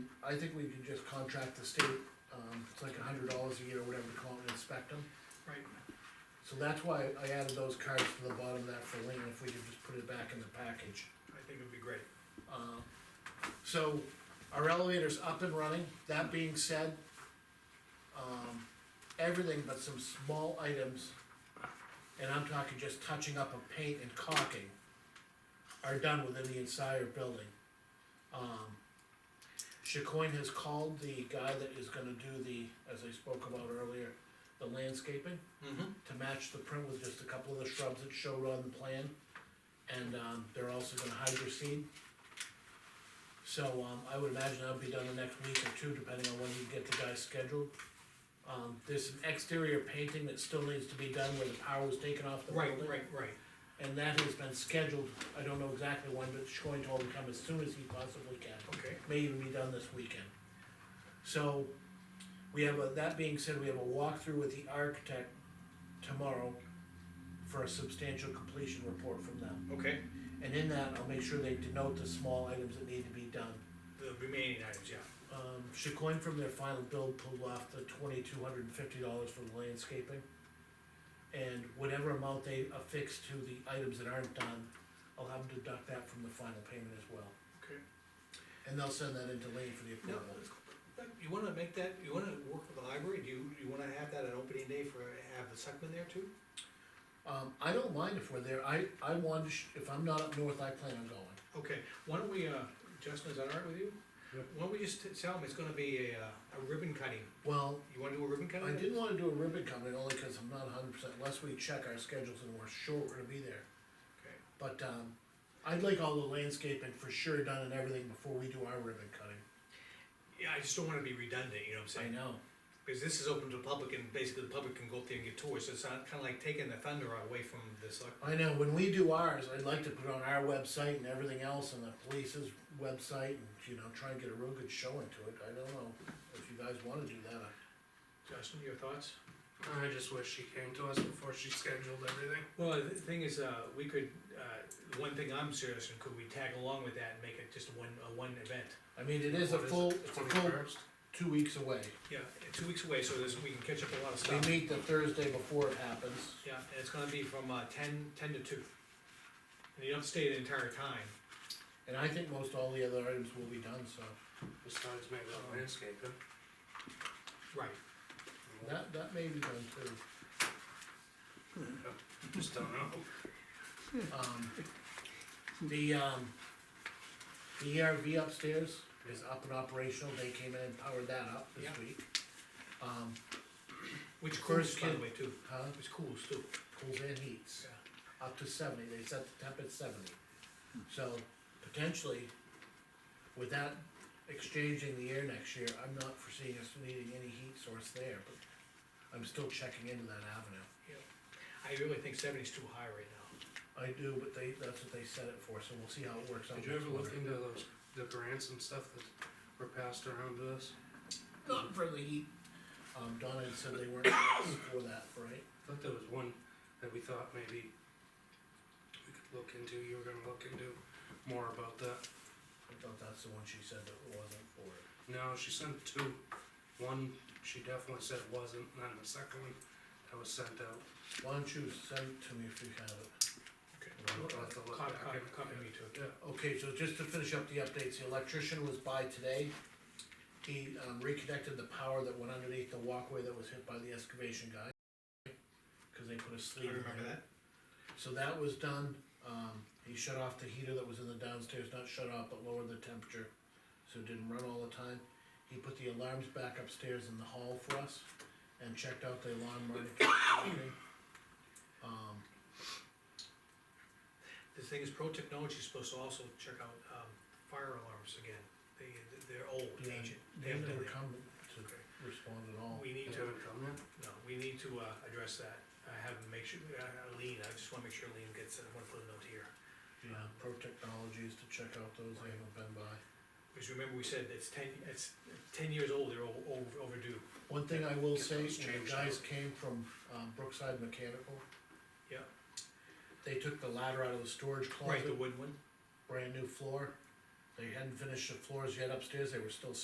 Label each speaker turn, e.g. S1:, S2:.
S1: I think we can just contract the state, um, it's like a hundred dollars a year or whatever to come out and inspect them.
S2: right,
S1: So that's why I added those cards to the bottom of that for Lean, if we could just put it back in the package.
S2: I think it'd be great.
S1: Uh, So our elevator's up and running, that being said, um, everything but some small items, and I'm talking just touching up of paint and caulking, are done within the entire building. Um, Chacoine has called the guy that is gonna do the, as I spoke about earlier, the landscaping
S2: Mm-hmm.
S1: to match the print with just a couple of the shrubs that showed on the plan. And, um, they're also gonna hydro seed. So, um, I would imagine that'll be done the next week or two, depending on when you get the guys scheduled. Um, there's some exterior painting that still needs to be done where the power was taken off the
S2: Right,
S1: building.
S2: right, right,
S1: And that has been scheduled, I don't know exactly when, but Schoen told him to come as soon as he possibly can
S2: okay,
S1: may even be done this weekend. So, we have, a that being said, we have a walkthrough with the architect tomorrow for a substantial completion report from them.
S2: okay,
S1: And in that, I'll make sure they denote the small items that need to be done.
S2: the remaining items, yeah,
S1: Um, Chicoine from their final build pulled off the twenty-two hundred and fifty dollars for the landscaping. And whatever amount they affix to the items that aren't done, I'll have them deduct that from the final payment as well.
S2: okay.
S1: And they'll send that into Lane for the
S2: Now,
S1: approval.
S2: you wanna make that, you wanna work with the library, do you, you wanna have that an opening day for, have the selectmen there too?
S1: Um, I don't mind if we're there, I, I want to, sh- if I'm not up north, I plan on going.
S2: Okay, why don't we, uh, Justin, is that all right with you?
S1: Yep.
S2: Why don't we just t- tell them it's gonna be a, uh, a ribbon cutting,
S1: Well,
S2: you wanna do a ribbon cutting?
S1: I didn't wanna do a ribbon cutting only cause I'm not hundred percent, unless we check our schedules and we're sure we're gonna be there.
S2: Okay,
S1: But, um, I'd like all the landscaping for sure done and everything before we do our ribbon cutting.
S2: yeah, I just don't wanna be redundant, you know what I'm saying?
S1: know.
S2: Because this is open to the public and basically the public can go up there and get tours, so it's not kinda like taking the thunder away from the select.
S1: I know, when we do ours, I'd like to put it on our website and everything else and the police's website and, you know, try and get a real good showing to it, I don't know if you guys wanna do that.
S2: Justin, your thoughts?
S3: I just wish she came to us before she scheduled everything.
S2: Well, the thing is, uh, we could, uh, one thing I'm serious, and could we tag along with that and make it just one, a one event?
S1: I mean, it is a
S3: What
S1: full,
S3: it,
S1: it's a full
S3: 21st?
S1: two weeks away.
S2: Yeah, two weeks away, so there's, we can catch up a lot of
S1: We
S2: stuff.
S1: meet the Thursday before it happens.
S2: Yeah, and it's gonna be from, uh, ten, ten to two. And you don't stay the entire time.
S1: And I think most all the other items will be done, so
S3: Besides maybe the landscaping.
S2: Right.
S1: that, that may be done too.
S3: Just don't know.
S1: Um, The, um, the ERV upstairs is up and operational, they came in and powered that up this
S2: Yeah.
S1: week. Um,
S2: Which
S1: First
S2: cools, by the
S1: kid.
S2: way, too.
S1: huh,
S2: Which cools too.
S1: cools and heats, up to seventy, they set the temp at seventy. So potentially, with that exchanging the air next year, I'm not foreseeing us needing any heat source there, but I'm still checking into that avenue.
S2: I really think seventy's too high right now.
S1: I do, but they, that's what they set it for, so we'll see how it works out.
S3: Did you ever
S1: next
S3: look
S1: winter.
S3: into those, the grants and stuff that were passed around to us?
S1: Not for the heat. Um, Donna had said they weren't asked for that, right?
S3: I thought there was one that we thought maybe we could look into, you were gonna look into more about that.
S1: I thought that's the one she said that wasn't for it.
S3: No, she sent two. One, she definitely said wasn't, and then the second one that was sent out.
S1: Why don't you send it to me if you have it?
S3: I'll
S2: Okay.
S3: have to look
S2: Copy,
S3: back
S2: copy,
S3: into it.
S2: copy me too.
S3: Yeah,
S1: Okay, so just to finish up the updates, the electrician was by today. He, um, reconnected the power that went underneath the walkway that was hit by the excavation guy. Cause they put a sleeve
S2: I
S1: in there.
S2: remember that.
S1: So that was done, um, he shut off the heater that was in the downstairs, not shut off, but lowered the temperature, so it didn't run all the time. He put the alarms back upstairs in the hall for us, and checked out the alarm monitor. Um,
S2: The thing is, Pro Technology is supposed to also check out, um, fire alarms again. They, they're old,
S1: yeah,
S2: ancient. They
S1: they
S2: haven't done
S1: never
S2: that.
S1: come to
S2: Okay.
S1: respond at all.
S2: We
S3: they
S2: need to,
S3: haven't come yet?
S2: no, we need to, uh, address that. I have, make sure, uh, uh, Lean, I just wanna make sure Lean gets, I wanna put a note here.
S1: Yeah, Pro Technologies to check out those, they haven't been by.
S2: Because remember, we said it's ten, it's ten years old, they're o- o- overdue.
S1: One thing I will
S3: Get
S1: say,
S3: those
S1: the
S3: changed
S1: guys came from, um, Brookside Mechanical.
S2: Yeah.
S1: They took the ladder out of the storage closet.
S2: Right, the wood one?
S1: brand new floor. They hadn't finished the floors yet upstairs, they were still